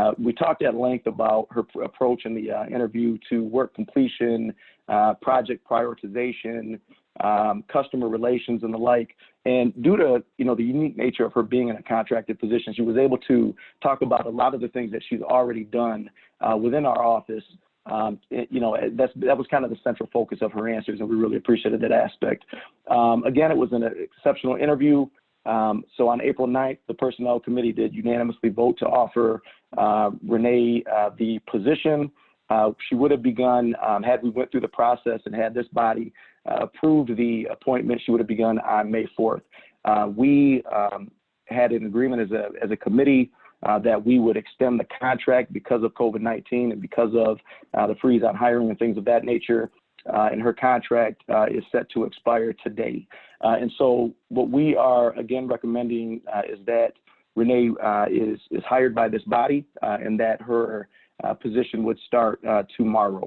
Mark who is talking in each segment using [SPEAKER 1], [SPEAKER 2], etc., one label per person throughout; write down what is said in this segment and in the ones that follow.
[SPEAKER 1] Uh, we talked at length about her pr- approach in the uh, interview to work completion, uh, project prioritization, um, customer relations, and the like. And due to you know the unique nature of her being in a contracted position, she was able to talk about a lot of the things that she's already done uh, within our office. Um, it- you know that's that was kind of the central focus of her answers, and we really appreciated that aspect. Um, again, it was an exceptional interview. Um, so on April 9th, the Personnel Committee did unanimously vote to offer uh, Renee uh, the position. Uh, she would have begun um, had we went through the process and had this body uh, approved the appointment. She would have begun on May 4th. Uh, we um, had an agreement as a as a committee uh, that we would extend the contract because of COVID-19 and because of uh, the freeze on hiring and things of that nature. Uh, and her contract uh, is set to expire today. Uh, and so, what we are again recommending uh, is that Renee uh, is is hired by this body, uh, and that her uh, position would start uh, tomorrow.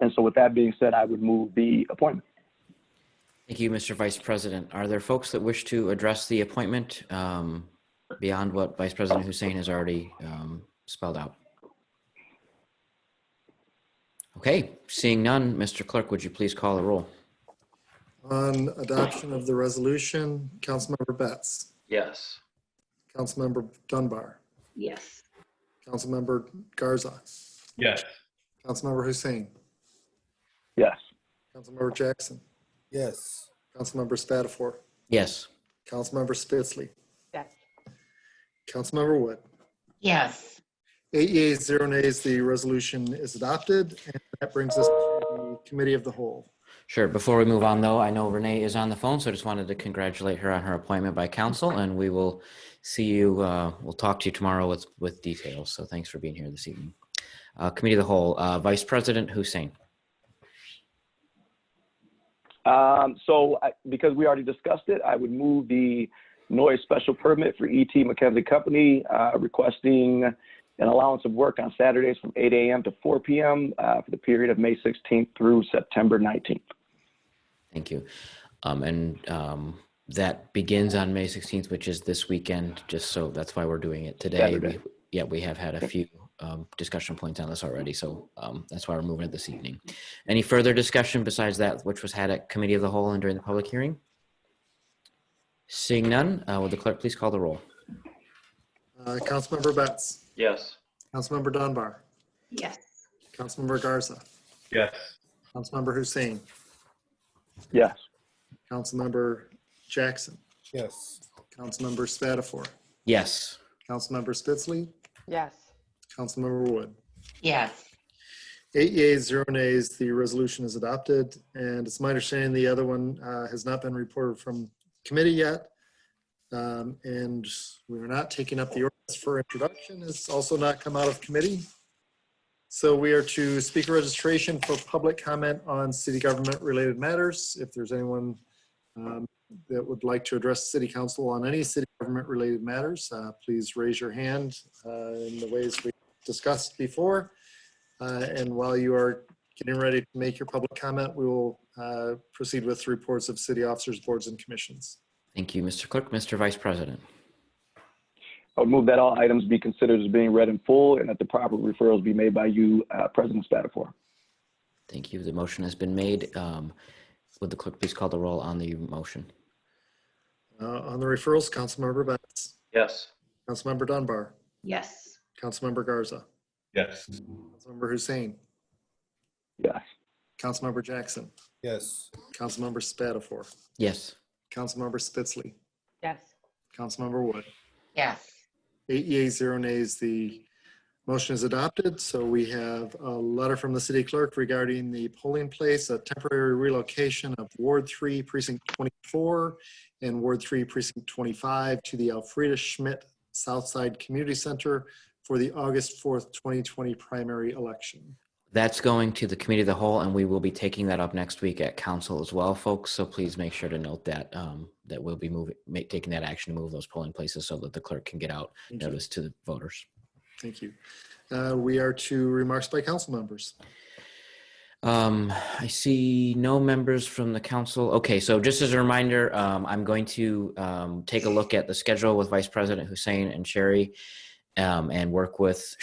[SPEAKER 1] And so, with that being said, I would move the appointment.
[SPEAKER 2] Thank you, Mr. Vice President. Are there folks that wish to address the appointment um, beyond what Vice President Hussein has already um, spelled out? Okay, seeing none, Mr. Clerk, would you please call the roll?
[SPEAKER 3] On adoption of the resolution, Councilmember Betts,
[SPEAKER 4] Yes.
[SPEAKER 3] Councilmember Dunbar,
[SPEAKER 5] Yes.
[SPEAKER 3] Councilmember Garza,
[SPEAKER 4] Yes.
[SPEAKER 3] Councilmember Hussein,
[SPEAKER 1] Yes.
[SPEAKER 3] Councilmember Jackson,
[SPEAKER 6] yes,
[SPEAKER 3] Councilmember Spatafor,
[SPEAKER 2] Yes,
[SPEAKER 3] Councilmember Spitzley,
[SPEAKER 5] Yes.
[SPEAKER 3] Councilmember Wood.
[SPEAKER 5] Yes.
[SPEAKER 3] Eight yeas, zero nays, the resolution is adopted. And that brings us to the Committee of the Whole.
[SPEAKER 2] sure. Before we move on, though, I know Renee is on the phone, so I just wanted to congratulate her on her appointment by council, and we will see you, uh, we'll talk to you tomorrow with, with details. So thanks for being here this evening. Uh, Committee of the Whole, uh, Vice President Hussein.
[SPEAKER 1] Um, so, I, because we already discussed it, I would move the noise special permit for ET McKenzie Company, uh, requesting an allowance of work on Saturdays from 8 a.m. to 4 p.m. Uh, for the period of May 16th through September 19th.
[SPEAKER 2] Thank you. Um, and um, that begins on May 16th, which is this weekend, just so that's why we're doing it today.
[SPEAKER 1] Saturday.
[SPEAKER 2] We- Yeah, we have had a few um, discussion points on this already, so um, that's why we're moving it this evening. Any further discussion besides that which was had at Committee of the Whole and during the public hearing? Seeing none, uh, will the clerk please call the roll?
[SPEAKER 3] Uh, Councilmember Betts,
[SPEAKER 4] Yes.
[SPEAKER 3] Councilmember Dunbar,
[SPEAKER 5] Yes.
[SPEAKER 3] Councilmember Garza,
[SPEAKER 4] Yes.
[SPEAKER 3] Councilmember Hussein,
[SPEAKER 1] Yes.
[SPEAKER 3] Councilmember Jackson,
[SPEAKER 6] yes,
[SPEAKER 3] Councilmember Spatafor,
[SPEAKER 2] Yes,
[SPEAKER 3] Councilmember Spitzley,
[SPEAKER 7] yes,
[SPEAKER 3] Councilmember Wood.
[SPEAKER 5] Yes.
[SPEAKER 3] Eight yeas, zero nays, the resolution is adopted. And it's my understanding the other one uh, has not been reported from committee yet. Um, And we are not taking up the ordinance for introduction. It's also not come out of committee. So we are to speaker registration for public comment on city government related matters. If there's anyone um, that would like to address city council on any city government related matters, uh, please raise your hand uh, in the ways we discussed before. Uh, And while you are getting ready to make your public comment, we will uh, proceed with reports of city officers, boards, and commissions.
[SPEAKER 2] thank you, Mr. Clerk. Mr. Vice President?
[SPEAKER 1] I would move that all items be considered as being read in full and that the proper referrals be made by you, uh, President Spatafor.
[SPEAKER 2] Thank you. The motion has been made. Um, Would the clerk please call the roll on the motion?
[SPEAKER 3] Uh, On the referrals, Councilmember Betts,
[SPEAKER 4] Yes.
[SPEAKER 3] Councilmember Dunbar,
[SPEAKER 5] Yes.
[SPEAKER 3] Councilmember Garza,
[SPEAKER 4] Yes.
[SPEAKER 3] Councilmember Hussein,
[SPEAKER 1] Yes.
[SPEAKER 3] Councilmember Jackson,
[SPEAKER 6] yes,
[SPEAKER 3] Councilmember Spatafor,
[SPEAKER 2] Yes.
[SPEAKER 3] Councilmember Spitzley,
[SPEAKER 7] yes,
[SPEAKER 3] Councilmember Wood.
[SPEAKER 5] Yes.
[SPEAKER 3] Eight yeas, zero nays, the motion is adopted. So we have a letter from the city clerk regarding the polling place, a temporary relocation of Ward 3 Precinct 24 and Ward 3 Precinct 25 to the Alfreda Schmidt Southside Community Center for the August 4th, 2020 primary election.
[SPEAKER 2] That's going to the committee of the whole, and we will be taking that up next week at council as well, folks. So please make sure to note that, um, that we'll be moving, make, taking that action to move those polling places so that the clerk can get out
[SPEAKER 3] Thank you.
[SPEAKER 2] notice to the voters.
[SPEAKER 3] Thank you. Uh, We are to remarks by council members.
[SPEAKER 2] Um, I see no members from the council. Okay, so just as a reminder, um, I'm going to um, take a look at the schedule with Vice President Hussein and Sherry um, and work with